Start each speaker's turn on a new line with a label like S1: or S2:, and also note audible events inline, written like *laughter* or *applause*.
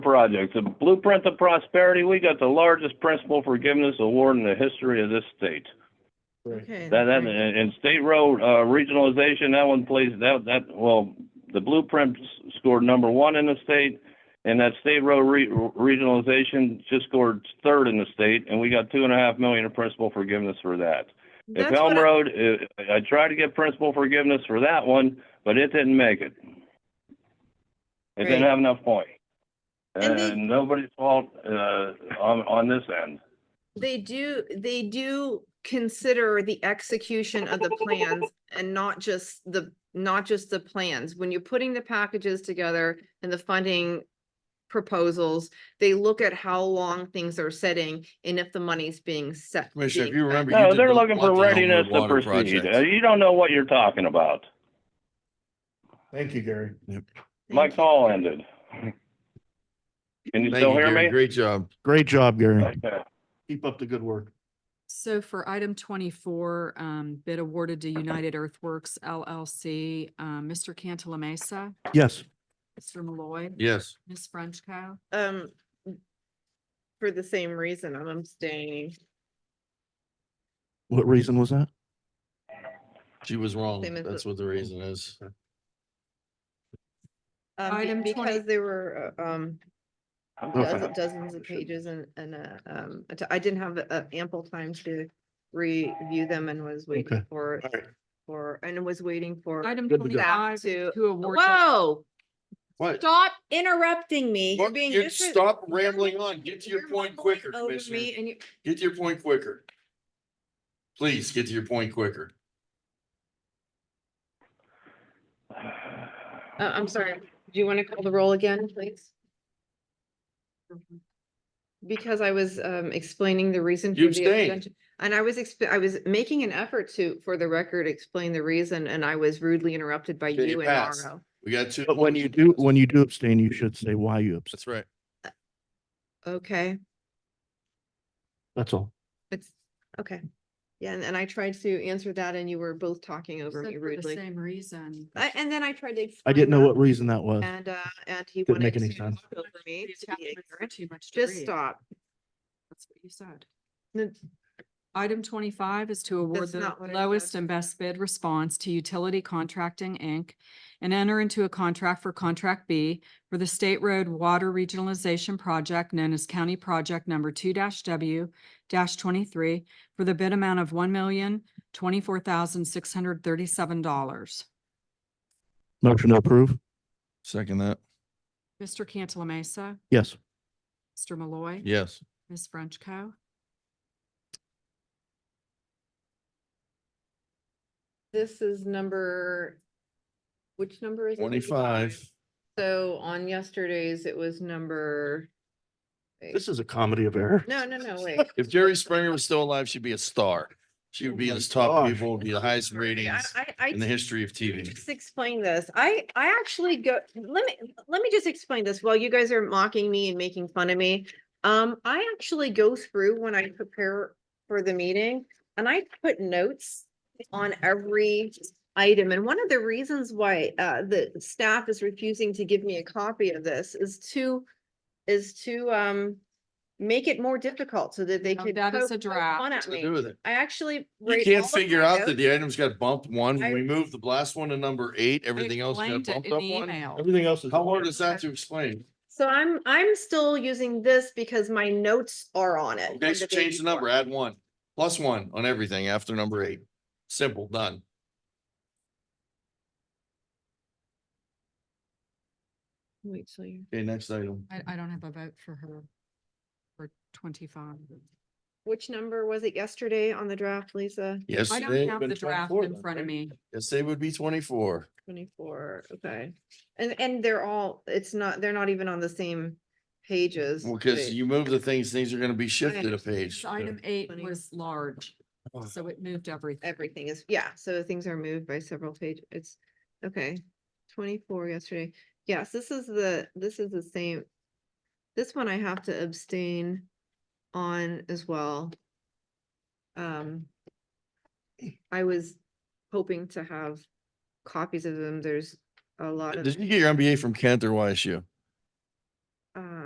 S1: projects. At Blueprint to Prosperity, we got the largest principal forgiveness award in the history of this state.
S2: Okay.
S1: That, that,
S2: great.
S1: and and state road, uh, regionalization, that one plays, that, that, well, the Blueprint s- scored number one in the state, and that state road re- regionalization just scored third in the state, and we got two and a half million in principal forgiveness for that. If
S2: That's what
S1: Elm
S2: I-
S1: Road, uh, I tried to get principal forgiveness for that one, but it didn't make it. It didn't
S2: Great.
S1: have enough point.
S2: And they-
S1: And nobody's fault, uh, on, on this end.
S2: They do, they do consider the execution of the plans and not just the, not just the plans. When you're putting the packages together and the funding proposals, they look at how long things are setting and if the money's being set.
S3: Commissioner, if
S2: being
S3: you
S2: spent.
S3: remember. you
S1: No,
S3: did
S1: they're
S3: the
S1: looking for
S3: Monty Homewood
S1: readiness to
S3: water
S1: proceed.
S3: project.
S1: Uh, You don't know what you're talking about.
S4: Thank you, Gary.
S1: My
S2: Thank you.
S1: call ended. Can you
S3: Thank
S1: still
S3: you,
S1: hear
S3: Gary.
S1: me?
S3: Great job.
S4: Great job, Gary.
S1: Okay.
S4: Keep up the good work.
S5: So for item twenty-four, um, bid awarded to United Earthworks LLC, um, Mr. Cantala Mesa,
S4: Yes.
S5: Mr. Malloy,
S3: Yes.
S5: Ms. Frenchco.
S2: Um, for the same reason, I'm abstaining,
S4: What reason was that?
S3: She was wrong.
S2: Same as
S3: That's
S2: the-
S3: what the reason is.
S2: um,
S5: Item
S2: be-
S5: 20
S2: Um, because there were, uh, um,
S4: Okay.
S3: Oh,
S2: dozen- dozens of pages and, and, uh, um, I t- I didn't have uh, ample time to review them and was waiting
S4: Okay.
S2: for,
S4: All right.
S2: for, and was waiting for.
S5: Item
S4: Good to go.
S5: twenty-five,
S2: To-
S5: to award. to-
S2: Whoa,
S3: What?
S2: stop interrupting me. You're
S3: What?
S2: being
S3: You
S2: disres-
S3: Stop
S2: you're-
S3: rambling on. Get to your
S2: you're
S3: point
S2: mumbling
S3: quicker,
S2: over
S3: Commissioner.
S2: me and you-
S3: Get to your point quicker. Please get to your point quicker.
S1: *sighs*
S2: Uh, I'm sorry, do you want to call the roll again, please? Because I was um explaining the reason. for
S3: You
S2: the
S3: abstained.
S2: abstention, And I was, exp- I was making an effort to, for the record, explain the reason, and I was rudely interrupted by
S3: Okay, you
S2: you and
S3: passed.
S2: Mauro.
S3: We got two.
S4: But when you do, when you do abstain, you should say why you abstain.
S3: That's right.
S2: Okay,
S4: That's all.
S2: it's, okay. Yeah, and and I tried to answer that and you were both talking over
S5: Said
S2: me
S5: For the
S2: rudely.
S5: same reason.
S2: I- And then I tried to.
S4: I didn't know
S2: explain
S4: what reason that was.
S2: that, And uh, and he
S4: Didn't make
S2: wanted
S4: any
S2: to
S4: sense.
S2: talk over me
S5: The
S2: to be
S5: attachments were
S2: ignorant.
S5: Too much. to
S2: Just
S5: read.
S2: stop.
S5: That's what you said.
S2: No,
S5: Item twenty-five is to award
S2: That's
S5: the
S2: not what I
S5: lowest
S2: said.
S5: and best bid response to Utility Contracting, Inc. and enter into a contract for Contract B for the State Road Water Regionalization Project known as County Project Number two W twenty-three for the bid amount of one million, twenty-four thousand, six hundred thirty-seven dollars.
S4: Motion to approve?
S3: Second that.
S5: Mr. Cantala Mesa,
S4: Yes.
S5: Mr. Malloy.
S3: Yes.
S5: Ms. Frenchco.
S2: This is number, which number is? it?
S3: Twenty-five.
S2: So on yesterday's, it was number. wait.
S4: This is a comedy of error.
S2: No, no, no,
S4: *laughs*
S2: wait.
S3: If Jerry Springer was still alive, she'd be a star. She would be in
S4: Oh my
S3: his top
S4: gosh.
S3: people, would be the highest
S2: Sorry, I,
S3: ratings
S2: I, I
S3: in the history of
S2: Let me
S3: TV.
S2: Just explain this. I, I actually go, let me, let me just explain this while you guys are mocking me and making fun of me. Um, I actually go through when I prepare for the meeting and I put notes on every item. And one of the reasons why, uh, the staff is refusing to give me a copy of this is to, is to, um, make it more difficult so that they
S5: No,
S2: could.
S5: that is
S2: poke-
S5: a
S2: poke fun
S5: draft.
S2: at
S3: To
S2: me.
S3: do with it.
S2: I actually.
S3: You
S2: write
S3: can't
S2: all of my
S3: figure out that
S2: notes.
S3: the items got bumped one, when
S2: I-
S3: we moved the last one to number eight, everything else got
S5: explained it
S3: bumped
S5: in
S3: up
S5: the
S3: one.
S5: email.
S4: Everything else is.
S3: How hard is that to explain?
S2: So I'm, I'm still using this because my notes are on it.
S3: Okay,
S2: from
S3: so
S2: the day
S3: change the
S2: before.
S3: number, add one, plus one on everything after number eight. Simple, done.
S2: Wait till you.
S3: Okay, next item.
S5: I, I don't have a vote for her for twenty-five.
S2: Which number was it yesterday on the draft, Lisa?
S5: I
S3: Yesterday.
S5: don't have the draft in front of me.
S3: Yesterday would be twenty-four.
S2: Twenty-four, okay. And, and they're all, it's not, they're not even on the same pages.
S3: Well, cause
S2: Wait.
S3: you move the things, things are gonna be shifted a page.
S5: This Item eight
S2: Funny.
S5: was large,
S3: Oh.
S5: so it moved everything.
S2: Everything is, yeah, so things are moved by several pages. It's, okay. Twenty-four yesterday. Yes, this is the, this is the same. This one I have to abstain on as well. Um. I was hoping to have copies of them. There's a lot of,
S3: Did you get your MBA from Kent or YSU?
S2: uh.